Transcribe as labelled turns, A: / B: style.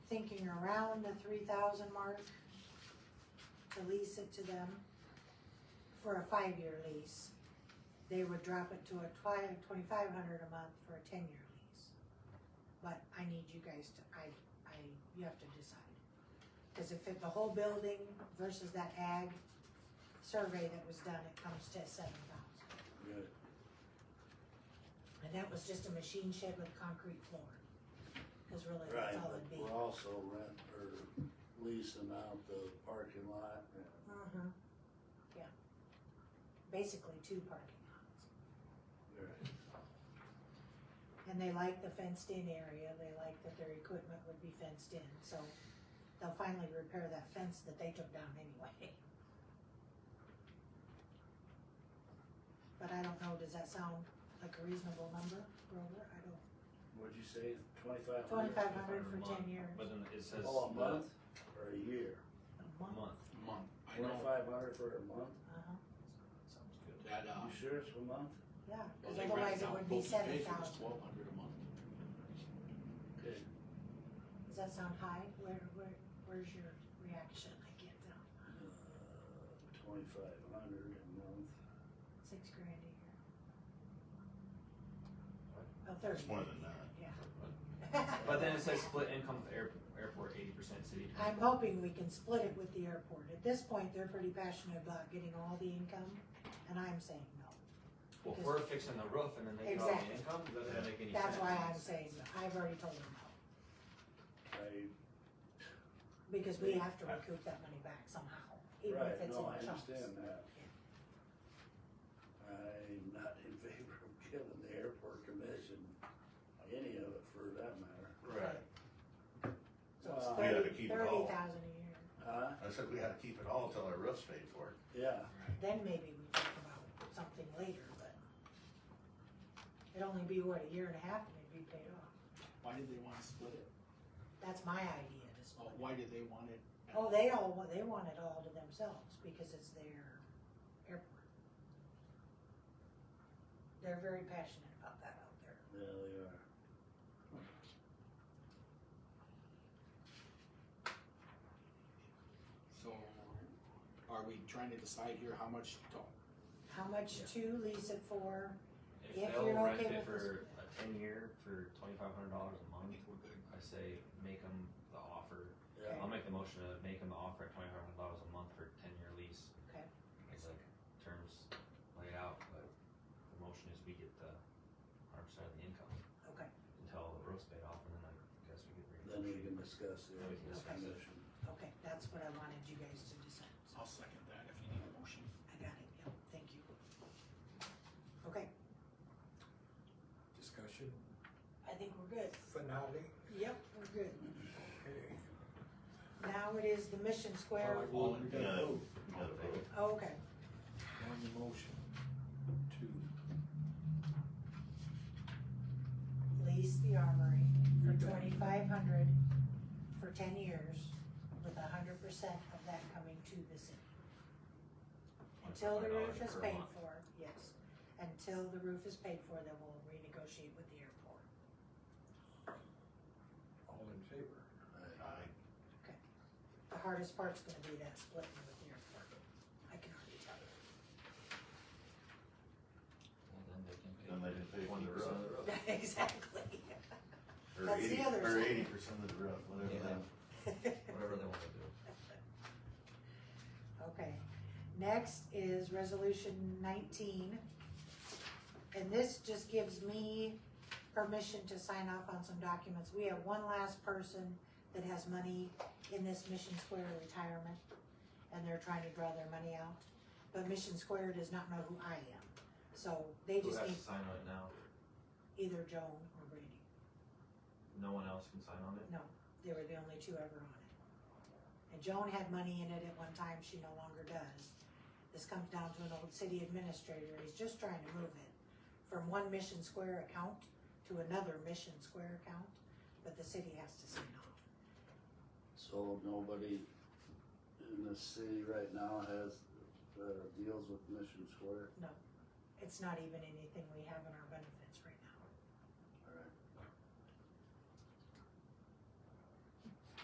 A: around the three thousand mark to lease it to them for a five-year lease. They would drop it to a twi- twenty-five hundred a month for a ten-year lease. But I need you guys to, I, I, you have to decide. Cause if it, the whole building versus that ag survey that was done, it comes to seven thousand.
B: Good.
A: And that was just a machine shed with concrete floor. Cause really,
B: Right,
A: that's all
B: but
A: it'd be.
B: we're also rent or leasing out the parking lot and
A: Uh-huh, yeah. Basically two parking lots. And they like the fenced-in area, they like that their equipment would be fenced in, so they'll finally repair that fence that they took down anyway. But I don't know, does that sound like a reasonable number, Grover? I don't,
B: What'd you say, twenty-five hundred?
A: twenty-five hundred for ten years,
C: But then it says.
B: Oh, a
C: the-
B: month or a year?
A: a
C: A
A: month,
C: month.
D: month. I know
B: Twenty-five hundred for a month?
A: uh-huh,
C: Sounds good.
D: that, uh.
B: You sure it's a month?
A: yeah,
D: well,
A: cause
D: they
A: otherwise
D: rented
A: it
D: out
A: would be
D: both the
A: seven
D: days, it was
A: thousand.
D: Twelve hundred a month.
B: Okay.
A: Does that sound high? Where, where, where's your reaction? I can't tell.
B: Uh, Twenty-five hundred a month.
A: Six grand a year. Oh, thirty.
E: It's more than that.
A: Yeah.
C: But then it says split income with air, airport eighty percent city.
A: I'm hoping we can split it with the airport. At this point, they're pretty passionate about getting all the income, and I'm saying no.
C: Well, if we're fixing the roof and then they draw
A: Exactly.
C: the income, that doesn't make any sense.
A: That's why I'm saying no. I've already told them no,
B: I,
A: because we have to recoup that money back somehow, even if
B: right,
A: it's
B: no, I
A: in chunks.
B: understand that. I'm not in favor of giving the airport commission any of it for that matter.
A: Right. So it's
B: Well,
E: We gotta
A: thirty,
E: keep it
A: thirty
E: all.
A: thousand a year.
B: Huh?
E: I said we had to keep it all till our roof's paid for.
B: Yeah,
A: then maybe we talk about something later, but it'd only be, what, a year and a half and it'd be paid off.
D: Why did they wanna split it?
A: That's my idea to
D: Oh,
A: split.
D: why did they want it? at-
A: Oh, they all, wa- they want it all to themselves because it's their airport. They're very passionate about that out there.
B: yeah, they are.
D: So, are we trying to decide here how much to,
A: How much to lease it for?
C: If
A: If
C: they'll
A: you're
C: rent
A: okay with
C: it
A: this-
C: for a ten year for twenty-five hundred dollars a
D: I
C: month,
D: think we're good.
C: I say make them the offer.
B: Yeah.
C: I'll make the motion to make them the offer at twenty-five hundred dollars a month for a ten-year lease.
A: Okay.
C: It's like terms laid out, but the motion is we get the hundred percent of the income
A: Okay,
C: until the roof's paid off and then I guess we get.
B: Then we can discuss the
C: Then we can discuss it.
B: commission.
A: okay, that's what I wanted you guys to decide. So
D: I'll second that if you need a motion.
A: I got it, yep, thank you. Okay,
F: Discussion,
A: I think we're good.
F: finale,
A: Yep, we're good.
F: okay.
A: Now it is the Mission Square.
F: All right, well, we gotta
E: No.
F: vote
C: All in favor?
A: Okay,
F: on the motion to
A: lease the armory for twenty-five hundred for ten years with a hundred percent of that coming to the city. Until the
C: $25
A: roof is
C: per
A: paid
C: month.
A: for, yes, until the roof is paid for, then we'll renegotiate with the airport.
F: all in favor.
E: Aye.
A: The hardest part's gonna be that splitting with the airport, I can already tell you.
C: And then they can pay.
E: Then they can pay for the
C: 20% of the
E: roof.
A: Exactly.
E: Or
A: That's the
E: 80
A: other
E: Or
A: side.
E: eighty percent of the roof, whatever
C: Yeah.
E: that
C: Whatever they wanna do.
A: Okay, next is resolution nineteen. And this just gives me permission to sign off on some documents. We have one last person that has money in this Mission Square retirement, and they're trying to draw their money out. But Mission Square does not know who I am, so they
C: Who
A: just
C: has
A: need
C: to sign on it now?
A: either Joan or Brady.
C: No one else can sign on it?
A: No, they were the only two ever on it. And Joan had money in it at one time, she no longer does. This comes down to an old city administrator, he's just trying to move it from one Mission Square account to another Mission Square account, but the city has to sign off.
B: So nobody in the city right now has, uh, deals with Mission Square?
A: It's not even anything we have in our benefit